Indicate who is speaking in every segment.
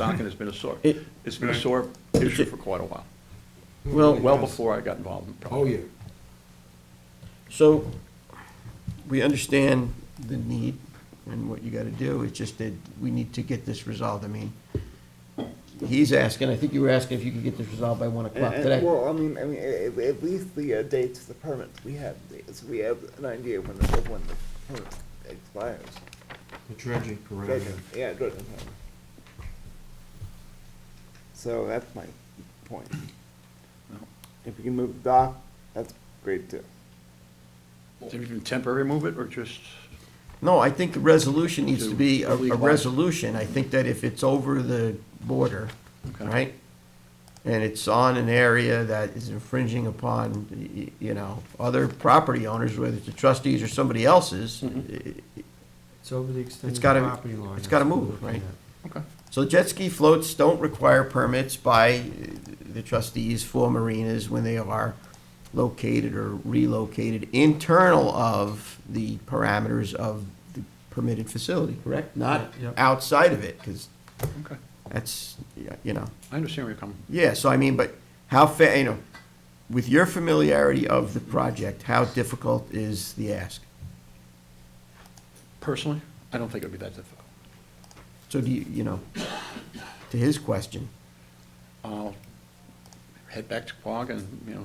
Speaker 1: dock, and it's been a sore,
Speaker 2: It-
Speaker 1: it's been a sore issue for quite a while,
Speaker 2: Well,
Speaker 1: well before I got involved in the project.
Speaker 3: Oh, yeah.
Speaker 2: So, we understand the need and what you gotta do, it's just that we need to get this resolved, I mean, he's asking, I think you were asking if you could get this resolved by one o'clock
Speaker 4: And-
Speaker 2: today.
Speaker 4: Well, I mean, I mean, at, at least the uh, dates, the permits we have, so we have an idea when the, when the permit expires.
Speaker 3: The dredging
Speaker 4: Dredging, Yeah, dredging permit. So that's my point. If you can move the dock, that's great too.
Speaker 1: Did we even temporary move it, or just,
Speaker 2: No, I think the resolution needs to be a, a
Speaker 1: Legalize.
Speaker 2: resolution, I think that if it's over the border,
Speaker 1: Okay.
Speaker 2: right? And it's on an area that is infringing upon, y- y- you know, other property owners, whether it's the trustees or somebody else's, i-
Speaker 3: It's over the
Speaker 2: It's
Speaker 3: extended
Speaker 2: gotta-
Speaker 3: property line.
Speaker 2: it's gotta
Speaker 3: That's what
Speaker 2: move,
Speaker 3: we're looking
Speaker 2: right?
Speaker 1: okay,
Speaker 2: So jet ski floats don't require permits by uh, the trustees for marinas when they are located or relocated internal of the parameters of the permitted facility, correct? Not
Speaker 3: Yep.
Speaker 2: outside of it, because
Speaker 1: okay.
Speaker 2: that's, yeah, you know,
Speaker 1: I understand where you're coming
Speaker 2: yeah, so I mean, but how fa, you know, with your familiarity of the project, how difficult is the ask?
Speaker 1: Personally, I don't think it'd be that difficult.
Speaker 2: So do you, you know, to his question,
Speaker 1: I'll head back to Quogue and, you know,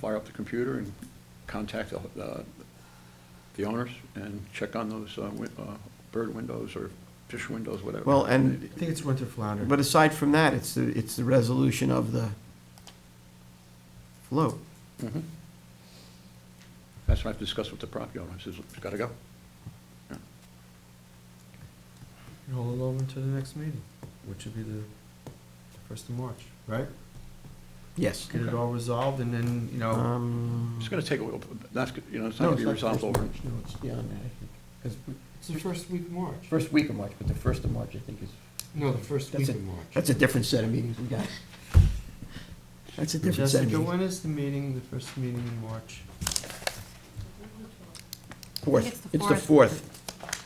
Speaker 1: fire up the computer and contact the, uh, the owners and check on those, uh, win- uh, bird windows or fish windows, whatever.
Speaker 2: well, and
Speaker 3: at. I think it's winter flounder.
Speaker 2: But aside from that, it's the, it's the resolution of the float.
Speaker 1: Mhm. That's what I've discussed with the property owner, I says, it's gotta go.
Speaker 3: And Hold it over until the next meeting, which would be the first of March, right?
Speaker 2: Yes.
Speaker 3: Get it all resolved and then, you know,
Speaker 2: Um,
Speaker 1: It's gonna take a little, that's, g- you know, it's not
Speaker 2: no,
Speaker 1: gonna be
Speaker 2: the
Speaker 1: resolved
Speaker 2: first
Speaker 1: over.
Speaker 2: of March. No, it's beyond that, I think. 'Cause
Speaker 3: it's the first week of
Speaker 2: the
Speaker 3: March.
Speaker 2: First week of March, but the first of March, I think is,
Speaker 3: No, the first
Speaker 2: That's
Speaker 3: week
Speaker 2: it.
Speaker 3: of March.
Speaker 2: that's a different set of meetings we got. That's a different set of
Speaker 3: Jessica,
Speaker 2: meetings.
Speaker 3: when is the meeting, the first meeting in March?
Speaker 5: It's
Speaker 2: Fourth,
Speaker 5: the
Speaker 2: it's the
Speaker 5: fourth.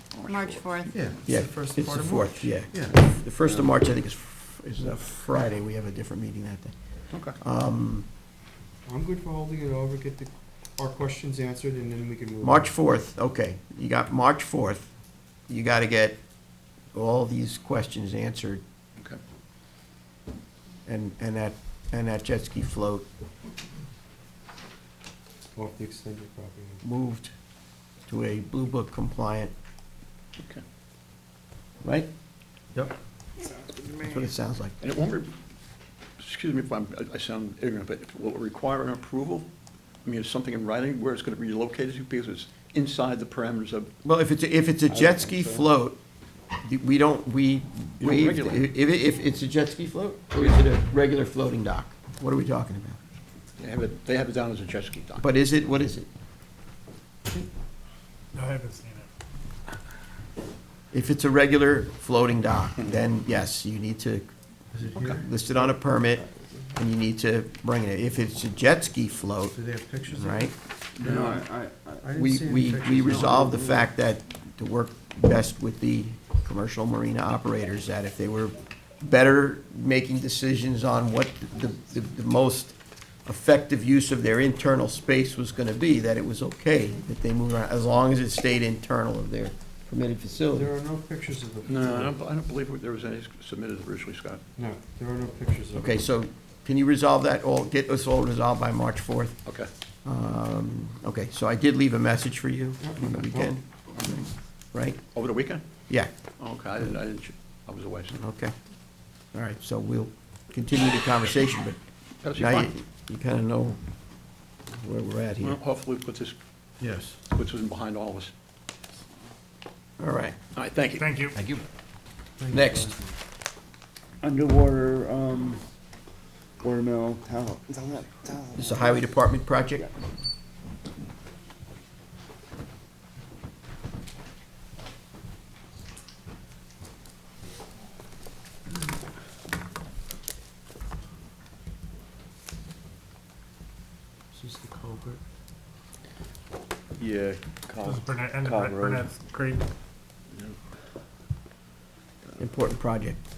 Speaker 2: fourth,
Speaker 5: March 4th.
Speaker 3: Yeah.
Speaker 2: yeah,
Speaker 3: the
Speaker 2: it's
Speaker 3: first
Speaker 2: the
Speaker 3: part of
Speaker 2: fourth,
Speaker 3: March.
Speaker 2: yeah.
Speaker 3: Yeah.
Speaker 2: The first of March, I think, is, f- is a Friday, we have a different meeting that day.
Speaker 1: Okay.
Speaker 2: Um,
Speaker 3: I'm good for holding it over, get the, our questions answered and then we can move. on.
Speaker 2: March 4th, okay, you got March 4th, you got to get all these questions answered,
Speaker 1: Okay.
Speaker 2: and, and that, and that jet ski float
Speaker 3: Off the extended property. line.
Speaker 2: moved to a Blue Book compliant,
Speaker 1: Okay.
Speaker 2: right?
Speaker 3: Yep.
Speaker 2: That's what it sounds like.
Speaker 1: And it won't, re- excuse me if I'm, I- I sound ignorant, but will it require an approval? I mean, is something in writing where it's gonna be located to because it's inside the parameters of,
Speaker 2: Well, if it's, if it's a jet ski float, we don't, we
Speaker 1: don't
Speaker 2: waive,
Speaker 1: regulate
Speaker 2: if,
Speaker 1: it.
Speaker 2: if it's a jet ski float, or is it a regular floating dock? What are we talking about?
Speaker 1: they have it, they have it down as a jet ski dock.
Speaker 2: But is it, what is it?
Speaker 6: I haven't seen it.
Speaker 2: If it's a regular floating dock, then yes, you need to
Speaker 3: Is it here?
Speaker 2: list it on a permit, and you need to bring it. If it's a jet ski float,
Speaker 3: Do they have pictures? of it?
Speaker 2: right,
Speaker 3: No, I, I didn't
Speaker 2: we,
Speaker 3: see any
Speaker 2: we, we
Speaker 3: pictures.
Speaker 2: resolve the fact that to work best with the commercial marina operators, that if they were better making decisions on what the, the, the most effective use of their internal space was gonna be, that it was okay, that they moved around, as long as it stayed internal of their permitted facility.
Speaker 3: There are no pictures of the.
Speaker 1: No, I don't, I don't believe there was any submitted originally, Scott.
Speaker 3: No, there are no pictures of it.
Speaker 2: Okay, so can you resolve that all, get us all resolved by March fourth?
Speaker 1: Okay.
Speaker 2: Um, Okay, so I did leave a message for you
Speaker 3: Yep.
Speaker 2: on the weekend, right?
Speaker 1: Over the weekend?
Speaker 2: Yeah,
Speaker 1: Oh, Okay, I didn't, I didn't, I was away. so-
Speaker 2: okay. All right, so we'll continue the conversation, but
Speaker 1: That's
Speaker 2: now you,
Speaker 1: fine.
Speaker 2: you kind of know where we're at
Speaker 1: Well,
Speaker 2: here.
Speaker 1: hopefully put this,
Speaker 3: Yes.
Speaker 1: puts us behind all of us.
Speaker 2: All right,
Speaker 1: All right, thank you.
Speaker 6: Thank you.
Speaker 7: Thank you.
Speaker 2: next.
Speaker 4: Underwater, um, watermill, town, town, town.
Speaker 2: This is a highway department project?
Speaker 3: This is the culvert.
Speaker 7: Yeah,
Speaker 6: This is
Speaker 7: Cobb,
Speaker 6: Burnett, and
Speaker 7: Cobb Road.
Speaker 6: Burnett's Creek.
Speaker 2: Important project.